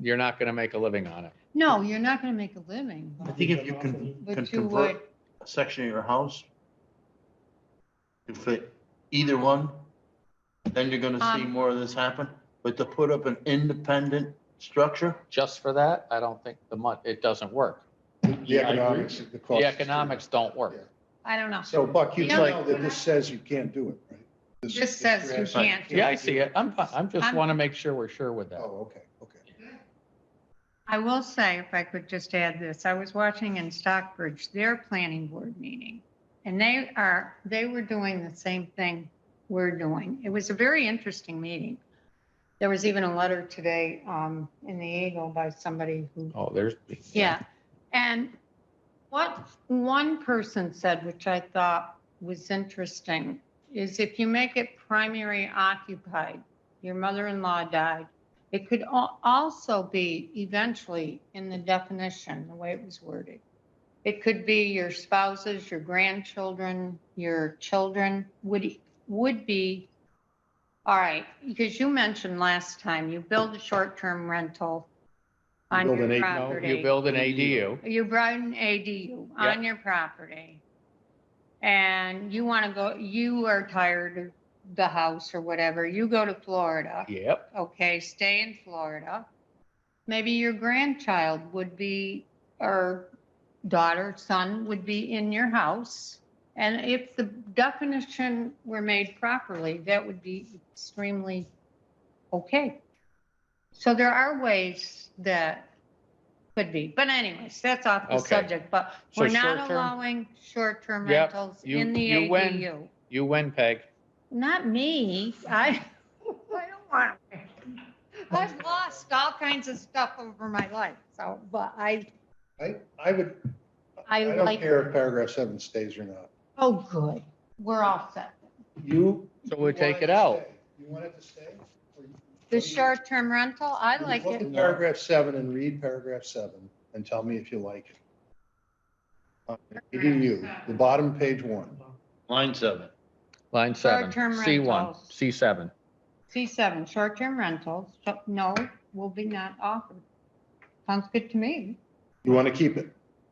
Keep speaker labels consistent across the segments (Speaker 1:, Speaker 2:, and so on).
Speaker 1: you're not gonna make a living on it.
Speaker 2: No, you're not gonna make a living,
Speaker 3: I think if you can, can
Speaker 2: but you would,
Speaker 3: convert a section of your house to fit either one, then you're gonna see
Speaker 2: Um,
Speaker 3: more of this happen. But to put up an independent structure,
Speaker 1: Just for that, I don't think the mon, it doesn't work.
Speaker 4: The economics, the cost.
Speaker 1: The
Speaker 4: is too
Speaker 1: economics don't work.
Speaker 2: I don't know.
Speaker 4: much. So Buck, you
Speaker 2: Yeah.
Speaker 4: know that this says you can't do it, right?
Speaker 2: This says you can't.
Speaker 1: Yeah, I see it. I'm, fi- I'm just
Speaker 2: I'm-
Speaker 1: wanna make sure we're sure with that.
Speaker 4: Oh, okay, okay.
Speaker 2: I will say, if I could just add this, I was watching in Stockbridge, their planning board meeting. And they are, they were doing the same thing we're doing. It was a very interesting meeting. There was even a letter today um, in the Eagle by somebody who
Speaker 1: Oh, there's.
Speaker 2: Yeah, and what one person said, which I thought was interesting, is if you make it primary occupied, your mother-in-law died, it could al- also be eventually in the definition, the way it was worded. It could be your spouses, your grandchildren, your children would, would be, all right, because you mentioned last time, you build a short-term rental on
Speaker 4: build an
Speaker 2: your
Speaker 4: eight- no,
Speaker 1: No,
Speaker 2: property.
Speaker 1: you build an ADU.
Speaker 2: You brought an ADU on your property. And you want to go, you are tired of the house or whatever, you go to Florida,
Speaker 1: Yep,
Speaker 2: okay, stay in Florida. Maybe your grandchild would be, or daughter, son would be in your house. And if the definition were made properly, that would be extremely okay. So there are ways that could be, but anyways, that's off the
Speaker 1: Okay.
Speaker 2: subject, but
Speaker 1: So
Speaker 2: we're not
Speaker 1: short-term?
Speaker 2: allowing short-term
Speaker 1: Yep,
Speaker 2: rentals
Speaker 1: you-
Speaker 2: in the
Speaker 1: you win.
Speaker 2: ADU.
Speaker 1: you win, Peg.
Speaker 2: Not me. I, I don't want to.
Speaker 1: Oh.
Speaker 2: I've lost all kinds of stuff over my life, so, but I,
Speaker 4: I, I would,
Speaker 2: I
Speaker 4: I don't
Speaker 2: like,
Speaker 4: care if paragraph seven stays or not.
Speaker 2: oh, good. We're all set.
Speaker 4: You.
Speaker 1: So we'll
Speaker 4: you
Speaker 1: take
Speaker 4: want
Speaker 1: it out.
Speaker 4: to stay. You want it to stay? Or you-
Speaker 2: The
Speaker 4: what do you-
Speaker 2: short-term rental, I like it.
Speaker 4: Look at Paragraph seven and read paragraph seven and tell me if you like it. Uh, ADU, the bottom page one.
Speaker 3: line seven.
Speaker 1: Line seven,
Speaker 2: Short-term
Speaker 1: C one,
Speaker 2: rentals.
Speaker 1: C seven.
Speaker 2: C seven, short-term rentals, so- no, will be not offered. Sounds good to me.
Speaker 4: You want to keep it?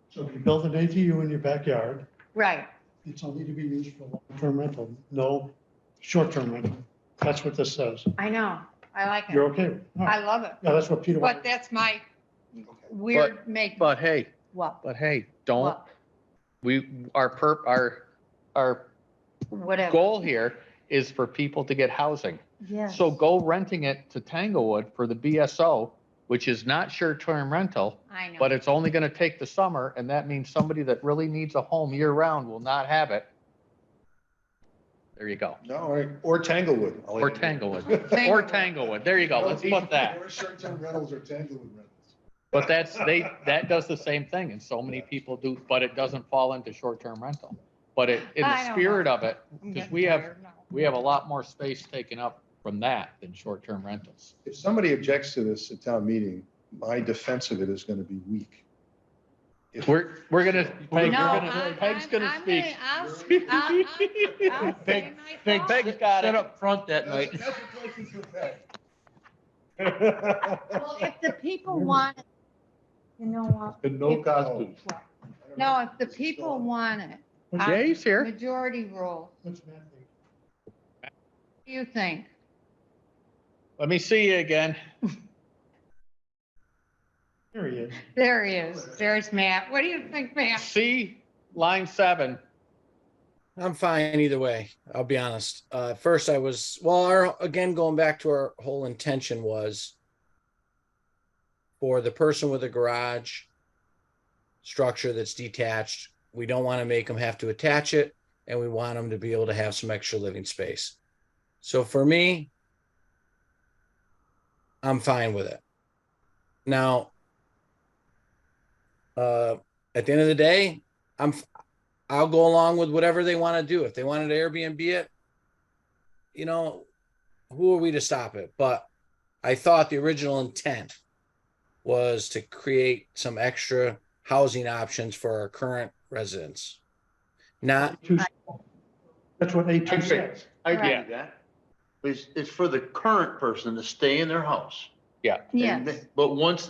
Speaker 5: So if you build an ATU in your backyard,
Speaker 2: Right,
Speaker 5: it's only to be used for long-term rental, no short-term rental. That's what this says.
Speaker 2: I know. I like
Speaker 5: You're
Speaker 2: it.
Speaker 5: okay? with it?
Speaker 2: I
Speaker 5: All right.
Speaker 2: love it.
Speaker 5: Yeah, that's what Peter
Speaker 2: But
Speaker 5: wanted.
Speaker 2: that's my weird make,
Speaker 1: But hey,
Speaker 2: what,
Speaker 1: but hey, don't,
Speaker 2: what,
Speaker 1: we, our perp, our, our
Speaker 2: whatever.
Speaker 1: goal here is for people to get housing.
Speaker 2: Yes.
Speaker 1: So go renting it to Tanglewood for the BSO, which is not short-term rental,
Speaker 2: I know.
Speaker 1: but it's only gonna take the summer, and that means somebody that really needs a home year-round will not have it. There you go.
Speaker 4: No, or- or Tanglewood. I'll
Speaker 1: Or
Speaker 4: add it.
Speaker 1: Tanglewood, or
Speaker 2: Tanglewood.
Speaker 1: Tanglewood, there you go, let's put that.
Speaker 4: Or short-term rentals or Tanglewood rentals.
Speaker 1: But that's, they, that does the same thing, and so many people do, but it doesn't fall into short-term rental. But it, in
Speaker 2: I
Speaker 1: the
Speaker 2: don't
Speaker 1: spirit
Speaker 2: know.
Speaker 1: of it,
Speaker 2: I'm
Speaker 1: 'cause
Speaker 2: getting
Speaker 1: we have-
Speaker 2: tired now.
Speaker 1: we have a lot more space taken up from that than short-term rentals.
Speaker 4: If somebody objects to this at town meeting, my defense of it is going to be weak. If-
Speaker 1: We're, we're gonna, Peg,
Speaker 5: No,
Speaker 1: we're
Speaker 2: No,
Speaker 1: gonna,
Speaker 2: I'm-
Speaker 1: Peg's
Speaker 2: I'm-
Speaker 1: gonna
Speaker 2: I'm
Speaker 1: speak.
Speaker 2: I'll, I'll, I'll say
Speaker 3: Peg-
Speaker 2: my
Speaker 3: Peg,
Speaker 2: thought.
Speaker 1: Peg-
Speaker 3: sit-
Speaker 1: got
Speaker 3: sit
Speaker 1: it.
Speaker 3: up front that
Speaker 4: That's-
Speaker 3: night.
Speaker 4: that's what places do that.
Speaker 2: Well, if the people want, it, you know what?
Speaker 3: And
Speaker 2: no
Speaker 4: costumes.
Speaker 2: Well, No, if the people want it,
Speaker 5: What's-
Speaker 1: Jay's here.
Speaker 2: majority rule,
Speaker 5: what's Matt think?
Speaker 2: what do you think?
Speaker 1: Let me see you again.
Speaker 5: Here he is.
Speaker 2: There he is, there's Matt, what do you think, Matt?
Speaker 1: See line seven.
Speaker 6: I'm fine either way. I'll be honest. Uh, at first, I was well. Our, again, going back to our whole intention was for the person with a garage structure that's detached. We don't want to make them have to attach it, and we want them to be able to have some extra living space. So for me, I'm fine with it. Now, uh, at the end of the day, I'm I'll go along with whatever they want to do. If they wanted to Airbnb it, you know, who are we to stop it? But I thought the original intent was to create some extra housing options for our current residents. Not,
Speaker 5: Two- That's what A2
Speaker 3: Okay.
Speaker 5: says.
Speaker 3: I
Speaker 2: Right.
Speaker 3: get that. But It's, it's for the current person to stay in their house.
Speaker 1: Yeah.
Speaker 3: And
Speaker 2: Yes.
Speaker 3: th- But once